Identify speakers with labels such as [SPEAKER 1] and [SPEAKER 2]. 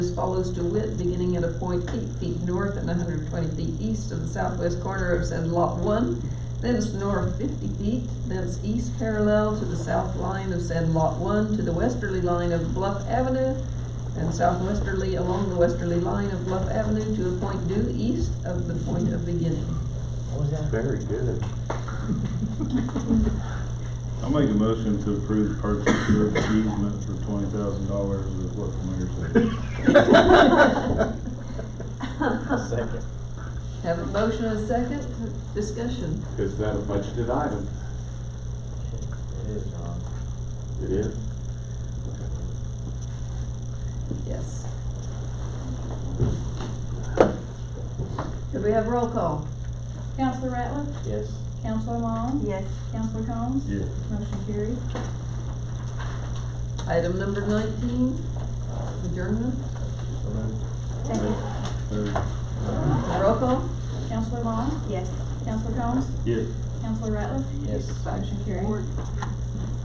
[SPEAKER 1] as follows to wit, beginning at a point eight feet north and hundred and twenty feet east of the southwest corner of said lot one, thence north fifty feet, thence east parallel to the south line of said lot one, to the westerly line of Bluff Avenue, and southwesterly along the westerly line of Bluff Avenue to a point due east of the point of beginning.
[SPEAKER 2] What was that?
[SPEAKER 3] Very good.
[SPEAKER 4] I'll make a motion to approve the purchase of easement for twenty thousand dollars is what the mayor
[SPEAKER 2] Second.
[SPEAKER 1] Have a motion and a second, discussion.
[SPEAKER 3] Is that a budgeted item?
[SPEAKER 2] It is, Ron.
[SPEAKER 3] It is.
[SPEAKER 1] Yes. Could we have roll call?
[SPEAKER 5] Counselor Ratliff?
[SPEAKER 2] Yes.
[SPEAKER 5] Counselor Long?
[SPEAKER 6] Yes.
[SPEAKER 5] Counselor Combs?
[SPEAKER 4] Yes.
[SPEAKER 5] Motion carried.
[SPEAKER 1] Item number nineteen, adjournment,
[SPEAKER 2] So moved.
[SPEAKER 6] Second.
[SPEAKER 4] said. Uh,
[SPEAKER 1] roll call?
[SPEAKER 5] Counselor Long?
[SPEAKER 6] Yes.
[SPEAKER 5] Counselor Combs?
[SPEAKER 4] Yes.
[SPEAKER 5] Counselor Ratliff?
[SPEAKER 2] Yes.
[SPEAKER 5] Motion carried.